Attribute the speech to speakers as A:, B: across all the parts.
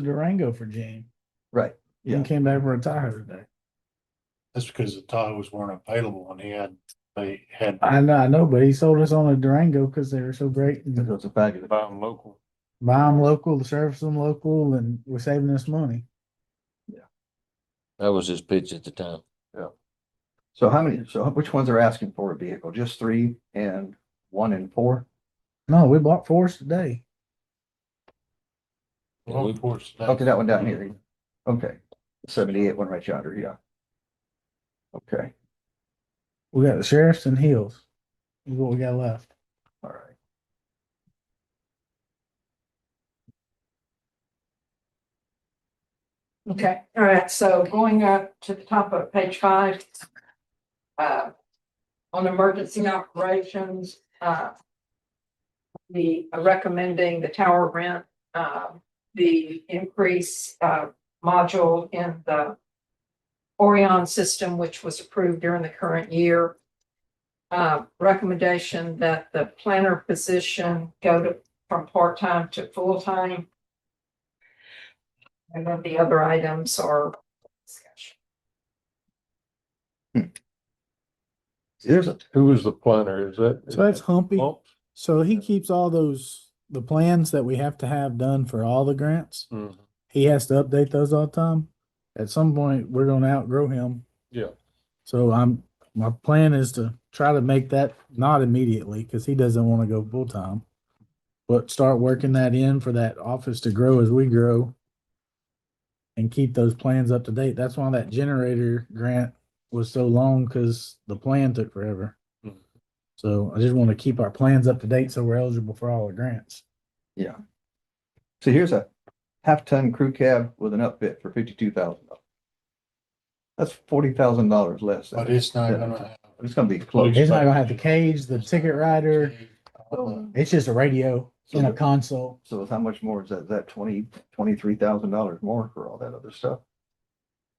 A: to Durango for Gene.
B: Right.
A: And came back for a Tahoe today.
C: That's because the Tahoes weren't available and he had, they had.
A: I know, I know, but he sold us on a Durango because they were so great.
B: It
A: and
B: was a package.
C: Buy them local.
A: Buy them local, service them local, and we're saving us money.
D: That was his pitch at the time.
B: So how many, so which ones are asking for a vehicle? Just three and one and four?
A: No, we bought fours today.
D: Yeah, we-
C: Of course.
B: Okay, that one down here. Okay, seventy-eight, one right yonder, yeah. Okay,
A: We got the sheriffs and Hills. Is what we got left.
B: all right.
E: Okay, all right, so going up to the top of page five. uh, On emergency operations, uh, the uh, recommending the tower rent, uh, the increase uh, module in the Orion system, which was approved during the current year. Uh, Recommendation that the planner position go to, from part-time to full-time. And then the other items are discussion.
B: There's a,
C: Who is the planner? Is that?
A: So that's Humpy.
C: Bump?
A: So he keeps all those, the plans that we have to have done for all the grants.
C: Mhm.
A: He has to update those all the time. At some point, we're gonna outgrow him.
C: Yeah.
A: So I'm, my plan is to try to make that not immediately, cause he doesn't wanna go full time. But start working that in for that office to grow as we grow. And keep those plans up to date. That's why that generator grant was so long, cause the plan took forever.
C: Mhm.
A: So I just wanna keep our plans up to date so we're eligible for all the grants.
B: yeah. So here's a half-ton crew cab with an upfit for fifty-two thousand dollars. That's forty thousand dollars less.
C: But it's not gonna have.
B: It's gonna be close.
A: It's not gonna have the cage, the ticket rider.
C: Uh,
A: It's just a radio and a console.
B: So how much more is that? Is that twenty, twenty-three thousand dollars more for all that other stuff?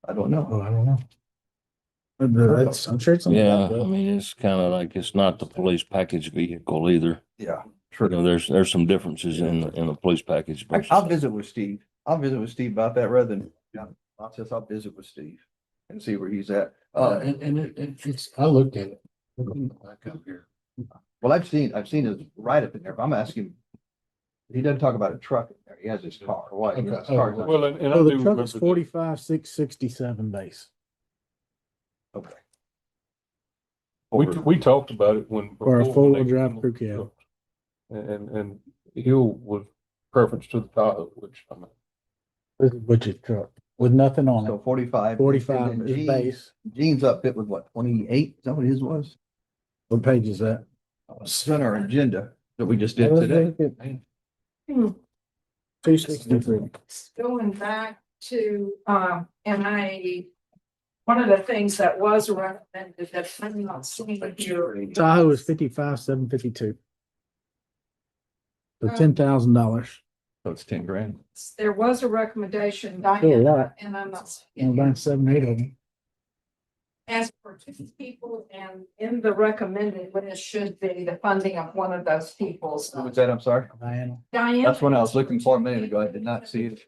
B: I don't know.
A: Oh, I don't know. That's, I'm sure it's. something
D: Yeah,
A: like
D: I
A: that.
D: mean, it's kind of like, it's not the police package vehicle either.
B: Yeah,
D: You
B: true.
D: know, there's, there's some differences in, the- in the police package.
B: I-
D: versus-
B: I'll visit with Steve. I'll visit with Steve about that rather than, I'll just, I'll visit with Steve and see where he's at. Uh,
C: and, and it, it- it's, I looked at it. Back up here.
B: well, I've seen, I've seen his write-up in there, but I'm asking. He doesn't talk about a truck in there. He has his car. Why?
C: Okay.
B: His car's not-
C: Well, and, and I
A: So
C: do
A: the truck
C: remember.
A: is forty-five, six sixty-seven base.
B: Okay.
C: that. We, we talked about it when.
A: Or a
C: before when they-
A: four-wheel drive crew cab.
C: And, and Hill was preference to the Tahoe, which I mean.
A: This is butcher's truck with nothing on
B: So
A: it.
B: forty-five.
A: Forty-five is
B: Jeans
A: base.
B: Jeans upfit was what, twenty-eight? Is that what his was?
A: What page is that?
B: It's on our agenda that we just did today.
A: Two sixty-three.
E: Going back to, um, MIA, one of the things that was recommended that I'm not seeing here.
A: Tahoe is fifty-five, seven fifty-two. So
E: Um,
A: ten thousand dollars.
B: So it's ten grand.
E: There was a recommendation,
A: Still a lot.
E: Diana, and I'm not
A: And
E: seeing it.
A: about seven, eight of them.
E: As for two people and in the recommended list should be the funding of one of those people's.
B: Who was that? I'm sorry.
A: Diana.
E: Diana.
B: That's what I was looking for a minute ago. I did not see it.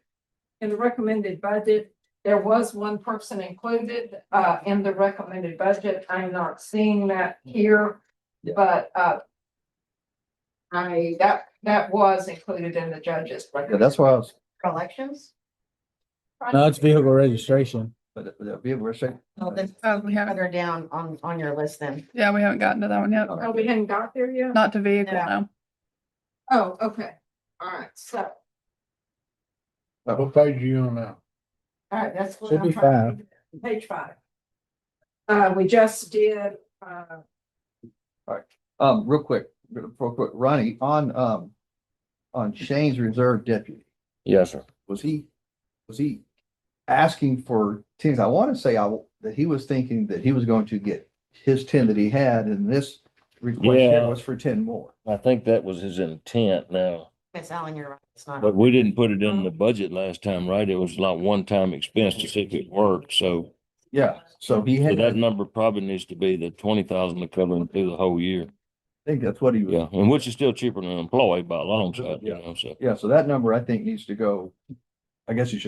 E: in the recommended budget, there was one person included, uh, in the recommended budget. I'm not seeing that here,
B: Yeah.
E: but, uh, I, that, that was included in the judge's.
B: Yeah, that's why I was,
E: Collections?
A: No, it's vehicle registration.
B: but but that'd be a weird second.
F: Oh, that's, oh, we haven't,
G: further down on, on your list then.
F: yeah, we haven't gotten to that one yet.
E: Oh, we hadn't got there yet?
F: Not to vehicle,
G: Yeah.
F: no.
E: Oh, okay. All right, so,
C: What page are you on now?
E: all right, that's. what
A: Should
E: I'm
A: be
E: trying to do. Page five. Uh, we just did, uh,
B: Um, real quick, real quick, Ronnie, on, um, on Shane's reserve deputy,
D: Yes, sir.
B: was he, was he asking for tens? I want to say I, that he was thinking that he was going to get his ten that he had and this request here
D: Yeah.
B: was for ten more.
D: I think that was his intent now,
G: Miss Allen, you're right. It's not.
D: but we didn't put it in the budget last time, right? It was like one-time expense to see if it worked, so.
B: Yeah, so he
D: So
B: had,
D: that
B: I
D: number probably needs to be the twenty thousand to cover him through the whole year.
B: think that's what he was,
D: Yeah, and which is still cheaper than an employee by a long shot, you
C: Yeah.
D: know, so.
B: yeah, so that number I think needs to go I guess you should